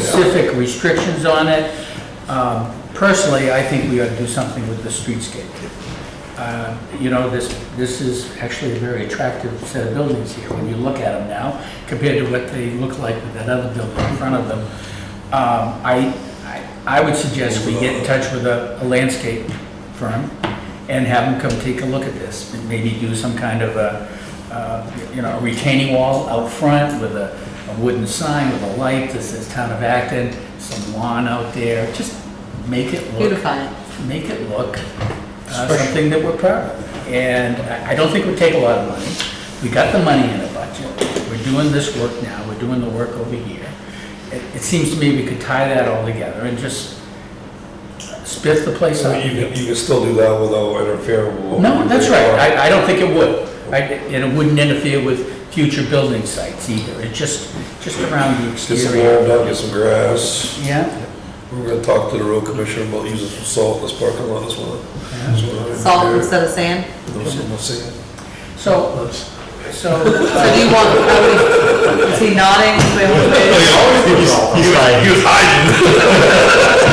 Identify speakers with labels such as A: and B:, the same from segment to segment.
A: specific restrictions on it. Um, Personally, I think we ought to do something with the streetscape. Uh, You know, this, this is actually a very attractive set of buildings here, when you look at them now, compared to what they look like with that other building in front of them. Um, I, I- I would suggest we get in touch with a a landscape firm and have them come take a look at this, and maybe do some kind of a, uh, you know, a retaining wall out front with a a wooden sign with a light that says Town of Acton, some lawn out there, just make it look
B: Beautify it.
A: make it look uh, something that we're proud of. And I- I don't think it would take a lot of money. We got the money in the budget. We're doing this work now, we're doing the work over here. It it seems to me we could tie that all together and just spiff the place
C: So
A: up.
C: you can, you can still do that without interfering with.
A: No, that's right, I, I don't think it would. I- And it wouldn't interfere with future building sites either, it just, just around the
C: Get some
A: exterior.
C: warmed up, get some grass.
A: Yeah,
C: We're gonna talk to the road commissioner about using some salt in this parking lot this winter. That's what I'm
B: Salt
C: here.
B: instead of sand?
C: No, so no sand.
A: so, so.
B: So do you want, are we- is he nodding? Do we want
D: Oh,
B: to-
A: Oh,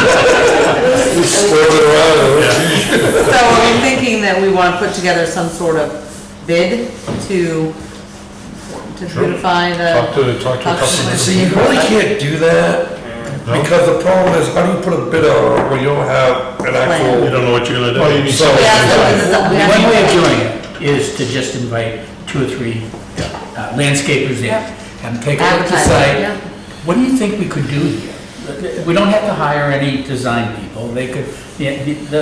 C: He's swerving around.
B: So are we thinking that we want to put together some sort of bid to, to beautify
D: Talk
B: the,
D: to, talk to a
B: Actually,
D: customer.
C: See, you really can't do that, because the problem is, how do you put a bid out when you don't have an
B: Plan.
D: You
C: actual?
D: don't know what you're gonna do.
C: Oh, you need-
D: So-
B: we have to, this is something we have to-
A: One way of doing it is to just invite two or three uh, landscapers in and take a look to
B: Advertise, yeah.
A: say, what do you think we could do here? We don't have to hire any design people, they could, yeah, the- the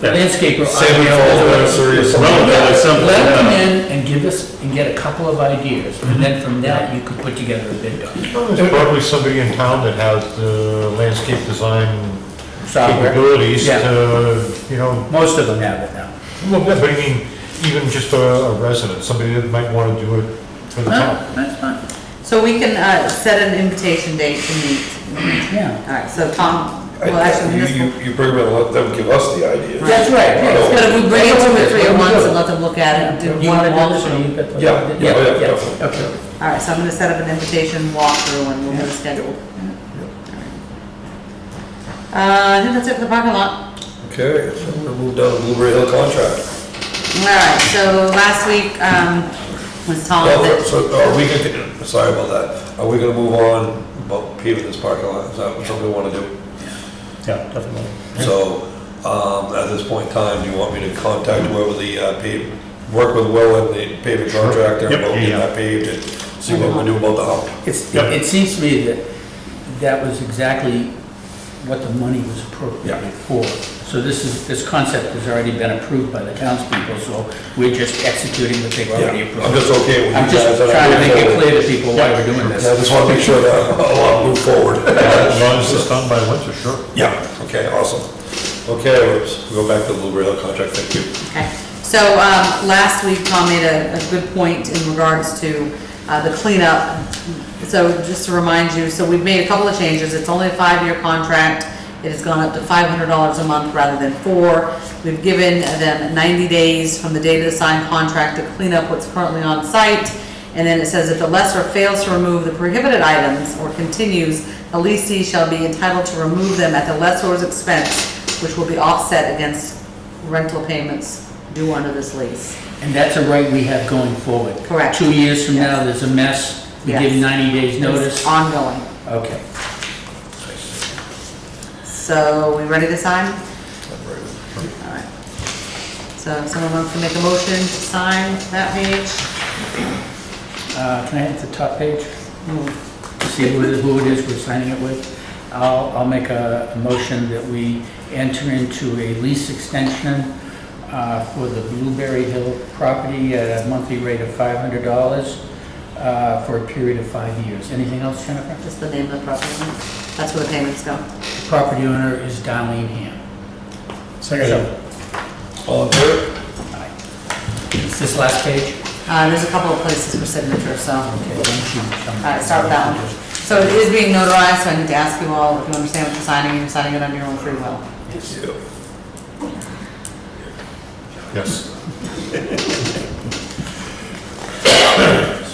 A: the landscaper.
C: Sammy Falls, or
D: No,
C: something.
D: that was simple,
A: Let them
D: yeah.
A: in and give us, and get a couple of ideas, and then from that, you could put together a bid document.
D: There's probably somebody in town that has the landscape design
A: Software.
D: capabilities
A: Yeah.
D: to, you know,
A: Most of them have it now.
D: well, but I mean, even just a a resident, somebody that might wanna do it for the
A: No,
D: town.
A: that's fine,
B: So we can, uh, set an invitation date to meet.
A: yeah.
B: All right, so Tom,
C: I-
B: well, actually,
C: You,
B: municipal.
C: you- you pretty much let them give us the idea.
A: That's right. yeah.
B: But if we bring it two or three
A: That's
B: at
A: what we
B: once
A: do.
B: and let them look at it, and do
A: You
B: one
A: wanna do this, or
B: walkthrough.
A: you got the-
C: Yeah, yeah, oh, yeah, definitely.
A: Okay.
B: All right, so I'm gonna set up an invitation walkthrough and we'll get it scheduled. Uh, I think that's it for the parking lot.
C: Okay, so we're gonna move down to Blueberry Hill contract.
B: All right, so last week, um, was Tom
C: Well,
B: that,
C: So are we gonna, sorry about that, are we gonna move on about paving this parking lot, is that something we wanna do?
A: Yeah, definitely.
C: So, um, at this point in time, do you want me to contact whoever the, uh, pave, work with Will and the paving contractor
D: Yep,
C: about getting
D: yeah.
C: that paved and see what we do about the hump?
A: It's,
D: Yep.
A: it seems to me that that was exactly what the money was appropriated for. So this is, this concept has already been approved by the townspeople, so we're just executing what they've already
C: Yeah, I'm
A: approved.
C: just okay with you
A: I'm
C: guys.
A: just
C: and I'm
A: trying to make it
C: moving
A: clear to people why we're doing
C: forward. Yeah, I
A: this.
C: just wanna make sure that a lot move forward.
D: As long as it's done by winter, sure.
C: Yeah, okay, awesome. Okay, let's go back to the Blueberry Hill contract, thank you.
B: okay. So, um, last week Tom made a, a good point in regards to, uh, the cleanup. So just to remind you, so we've made a couple of changes. It's only a five-year contract. It has gone up to five hundred dollars a month rather than four. We've given them ninety days from the date of the signed contract to clean up what's currently on site. And then it says, if the lesser fails to remove the prohibited items or continues, the lessee shall be entitled to remove them at the lessor's expense, which will be offset against rental payments due under this lease.
A: And that's a right we have going forward.
B: Correct.
A: Two years from now, there's a mess, we give
B: Yes.
A: 90 days
B: It's
A: notice.
B: Ongoing.
A: Okay.
B: So, we ready to sign? All right. So, if someone wants to make a motion to sign that page?
A: Uh, Can I have the top page?
B: Hmm.
A: see who it is- who it is we're signing it with. I'll, I'll make a a motion that we enter into a lease extension uh, for the Blueberry Hill property at a monthly rate of $500 uh, for a period of five years. Anything else, Jennifer?
B: Just the name of the property. That's where the payments go.
A: The property owner is Darlene Ham. So,
C: All in favor?
A: Is this last page?
B: Uh, there's a couple of places for signature, so.
A: Okay, why don't you tell me?
B: All right, Uh, start with that one. So it is being notarized, so I need to ask you all if you understand what you're signing, and you're signing it under your own free will.
C: Yeah.
D: Yes.